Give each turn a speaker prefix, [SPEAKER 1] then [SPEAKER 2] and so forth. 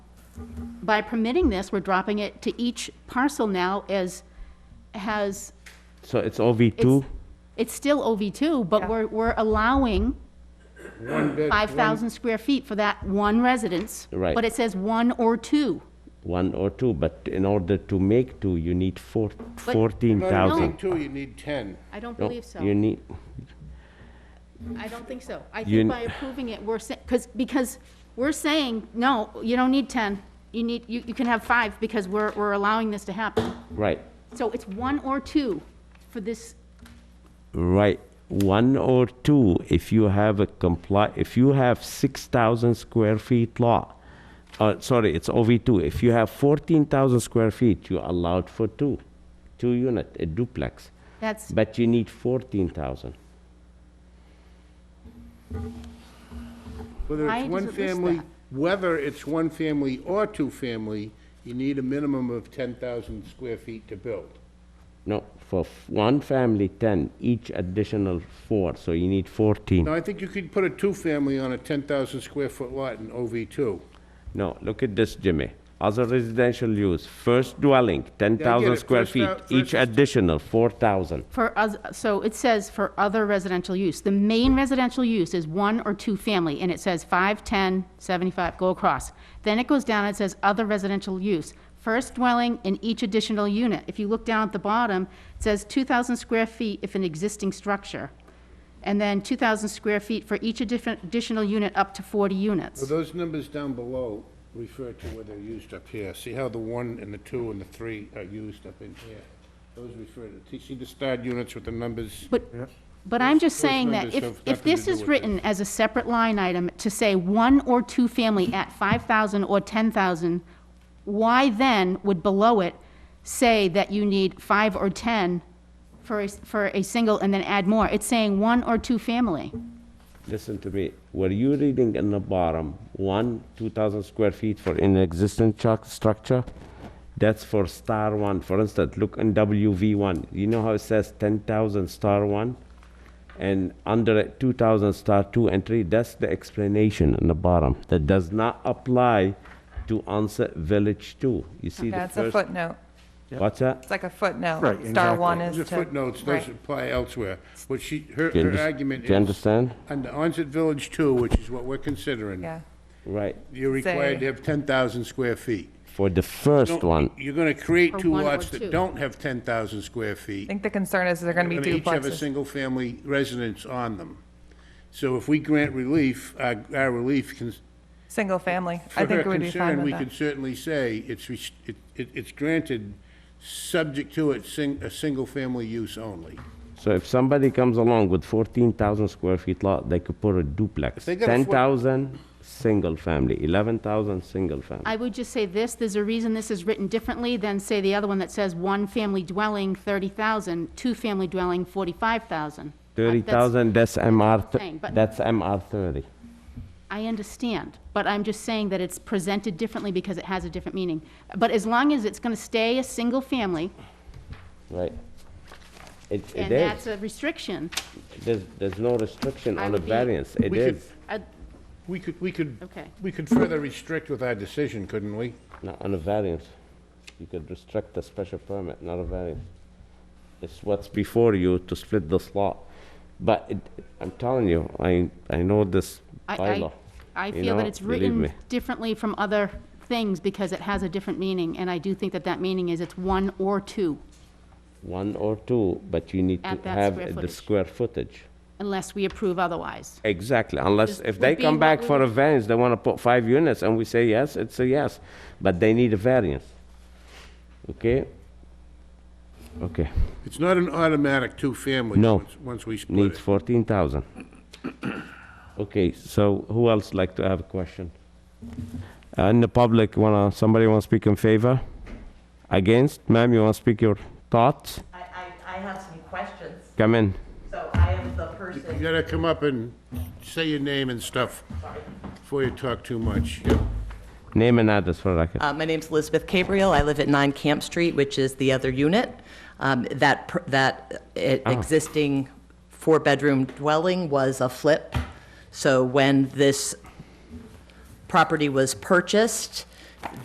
[SPEAKER 1] by permitting this, we're dropping it to each parcel now as, has,
[SPEAKER 2] So it's OV2?
[SPEAKER 1] it's, it's still OV2,
[SPEAKER 3] Yeah.
[SPEAKER 1] but we're, we're allowing
[SPEAKER 4] One bed, one-
[SPEAKER 1] 5,000 square feet for that one residence.
[SPEAKER 2] Right.
[SPEAKER 1] But it says one or two.
[SPEAKER 2] One or two, but in order to make two, you need four,
[SPEAKER 1] But-
[SPEAKER 4] No, you
[SPEAKER 2] 14,000.
[SPEAKER 4] need two, you need 10.
[SPEAKER 1] I don't
[SPEAKER 2] No,
[SPEAKER 1] believe so.
[SPEAKER 2] You need,
[SPEAKER 1] I don't think so. I
[SPEAKER 2] You-
[SPEAKER 1] think by approving it, we're, because, because we're saying, no, you don't need 10. You need, you, you can have five because we're, we're allowing this to happen.
[SPEAKER 2] right,
[SPEAKER 1] So it's one or two for this,
[SPEAKER 2] right, one or two, if you have a comply, if you have 6,000 square feet lot, uh, sorry, it's OV2, if you have 14,000 square feet, you're allowed for two, two unit, a duplex,
[SPEAKER 1] that's,
[SPEAKER 2] but you need 14,000.
[SPEAKER 4] Whether
[SPEAKER 1] Why
[SPEAKER 4] it's
[SPEAKER 1] does
[SPEAKER 4] one
[SPEAKER 1] it list
[SPEAKER 4] family,
[SPEAKER 1] that?
[SPEAKER 4] whether it's one family or two family, you need a minimum of 10,000 square feet to build.
[SPEAKER 2] No, for f- one family, 10, each additional four, so you need 14.
[SPEAKER 4] Now, I think you could put a two-family on a 10,000 square foot lot in OV2.
[SPEAKER 2] No, look at this, Jimmy. Other residential use, first dwelling, ten
[SPEAKER 4] Yeah, I get
[SPEAKER 2] thousand
[SPEAKER 4] it.
[SPEAKER 2] square
[SPEAKER 4] First
[SPEAKER 2] feet,
[SPEAKER 4] out- first
[SPEAKER 2] each
[SPEAKER 4] is-
[SPEAKER 2] additional, four thousand.
[SPEAKER 1] for, us. so it says for other residential use. The main residential use is one or two family, and it says five, 10, 75, go across. Then it goes down and says other residential use, first dwelling in each additional unit. If you look down at the bottom, it says 2,000 square feet if an existing structure, and then 2,000 square feet for each addiff- additional unit up to 40
[SPEAKER 4] So
[SPEAKER 1] units.
[SPEAKER 4] those numbers down below refer to where they're used up here. See how the one and the two and the three are used up in here? Those refer to, see the starred units with the numbers?
[SPEAKER 1] But, but I'm just
[SPEAKER 4] Those- those
[SPEAKER 1] saying that
[SPEAKER 4] numbers have
[SPEAKER 1] if, if
[SPEAKER 4] nothing to
[SPEAKER 1] this
[SPEAKER 4] do
[SPEAKER 1] is
[SPEAKER 4] with it.
[SPEAKER 1] written as a separate line item to say one or two family at 5,000 or 10,000, why then would below it say that you need five or 10 for, a s- for a single and then add more? It's saying one or two family.
[SPEAKER 2] Listen to me, were you reading in the bottom, one, two thousand square feet for an existing chuck structure? That's for star one, for instance, look in WV one, you know how it says ten thousand star one? And under it, two thousand star two and three, that's the explanation in the bottom, that does not apply to onset village two. You see the
[SPEAKER 3] That's a
[SPEAKER 2] first
[SPEAKER 3] footnote.
[SPEAKER 2] What's that?
[SPEAKER 3] It's like a footnote.
[SPEAKER 5] Right,
[SPEAKER 3] Star
[SPEAKER 5] exactly.
[SPEAKER 3] one is to.
[SPEAKER 4] The footnotes, those
[SPEAKER 3] right.
[SPEAKER 4] apply elsewhere. What she, her,
[SPEAKER 2] Do you
[SPEAKER 4] her
[SPEAKER 2] under-
[SPEAKER 4] argument is.
[SPEAKER 2] do you understand?
[SPEAKER 4] Under Onset Village Two, which is what we're considering.
[SPEAKER 3] Yeah.
[SPEAKER 2] Right.
[SPEAKER 4] You're required to have ten thousand square feet.
[SPEAKER 2] For the first
[SPEAKER 4] Don't-
[SPEAKER 2] one,
[SPEAKER 4] You're gonna create
[SPEAKER 1] Or
[SPEAKER 4] two
[SPEAKER 1] one or
[SPEAKER 4] lots
[SPEAKER 1] two.
[SPEAKER 4] that don't have ten thousand square
[SPEAKER 3] I
[SPEAKER 4] feet.
[SPEAKER 3] think the concern is they're going to be
[SPEAKER 4] They're gonna each have a
[SPEAKER 3] duplexes.
[SPEAKER 4] single-family residence on them. So if we grant relief, our, our relief can,
[SPEAKER 3] Single family. I
[SPEAKER 4] for
[SPEAKER 3] think
[SPEAKER 4] her
[SPEAKER 3] it would be fine
[SPEAKER 4] concern,
[SPEAKER 3] with
[SPEAKER 4] we
[SPEAKER 3] that.
[SPEAKER 4] could certainly say it's, res- it, it- it's granted, subject to it, sing, a single-family use only.
[SPEAKER 2] so if somebody comes along with fourteen thousand square feet lot, they could put a duplex.
[SPEAKER 4] they got a
[SPEAKER 2] Ten
[SPEAKER 4] four-
[SPEAKER 2] thousand, single family, eleven thousand, single family.
[SPEAKER 1] I would just say this, there's a reason this is written differently than, say, the other one that says one family dwelling, 30,000, two family dwelling, 45,000. I- that's-
[SPEAKER 2] Thirty thousand, that's MR,
[SPEAKER 1] what I'm saying,
[SPEAKER 2] th-
[SPEAKER 1] but-
[SPEAKER 2] that's MR thirty.
[SPEAKER 1] I understand, but I'm just saying that it's presented differently because it has a different meaning. But as long as it's going to stay a single family,
[SPEAKER 2] Right. It, it
[SPEAKER 1] and
[SPEAKER 2] is.
[SPEAKER 1] that's a restriction,
[SPEAKER 2] There's, there's no restriction
[SPEAKER 1] I
[SPEAKER 2] on a
[SPEAKER 1] would be-
[SPEAKER 2] variance. It
[SPEAKER 4] We could-
[SPEAKER 2] is,
[SPEAKER 1] I'd-
[SPEAKER 4] We could, we could,
[SPEAKER 1] Okay.
[SPEAKER 4] we could further restrict with our decision, couldn't we?
[SPEAKER 2] not on a variance. You could restrict a special permit, not a variance. It's what's before you to split this lot. But it, I'm telling you, I, I know this
[SPEAKER 1] I- I,
[SPEAKER 2] bylaw.
[SPEAKER 1] I
[SPEAKER 2] you
[SPEAKER 1] feel that
[SPEAKER 2] know,
[SPEAKER 1] it's
[SPEAKER 2] believe
[SPEAKER 1] written
[SPEAKER 2] me.
[SPEAKER 1] differently from other things because it has a different meaning, and I do think that that meaning is it's one or two,
[SPEAKER 2] One or two, but you need to
[SPEAKER 1] At that square
[SPEAKER 2] have the
[SPEAKER 1] footage.
[SPEAKER 2] square footage.
[SPEAKER 1] unless we approve otherwise.
[SPEAKER 2] Exactly, unless,
[SPEAKER 1] Just
[SPEAKER 2] if
[SPEAKER 1] would
[SPEAKER 2] they
[SPEAKER 1] be
[SPEAKER 2] come
[SPEAKER 1] what
[SPEAKER 2] back
[SPEAKER 1] we
[SPEAKER 2] for
[SPEAKER 1] would-
[SPEAKER 2] a variance, they want to put five units, and we say yes, it's a yes, but they need a variance. Okay? Okay,
[SPEAKER 4] It's not an automatic two-family.
[SPEAKER 2] No.
[SPEAKER 4] once- Once we split
[SPEAKER 2] needs
[SPEAKER 4] it.
[SPEAKER 2] fourteen thousand. Okay, so who else like to have a question? Uh, In the public, wanna, somebody want to speak in favor? Against? Ma'am, you want to speak your thoughts?
[SPEAKER 6] I, I, I have some questions.
[SPEAKER 2] Come in.
[SPEAKER 6] So I am the
[SPEAKER 4] You
[SPEAKER 6] person,
[SPEAKER 4] gotta come up and say your name and stuff before you talk too much. Yeah.
[SPEAKER 2] Name and address for record.
[SPEAKER 6] uh, my name's Elizabeth Cabriel, I live at 9 Camp Street, which is the other unit. Um, that, per- that uh, existing four-bedroom dwelling was a flip. So when this property was purchased,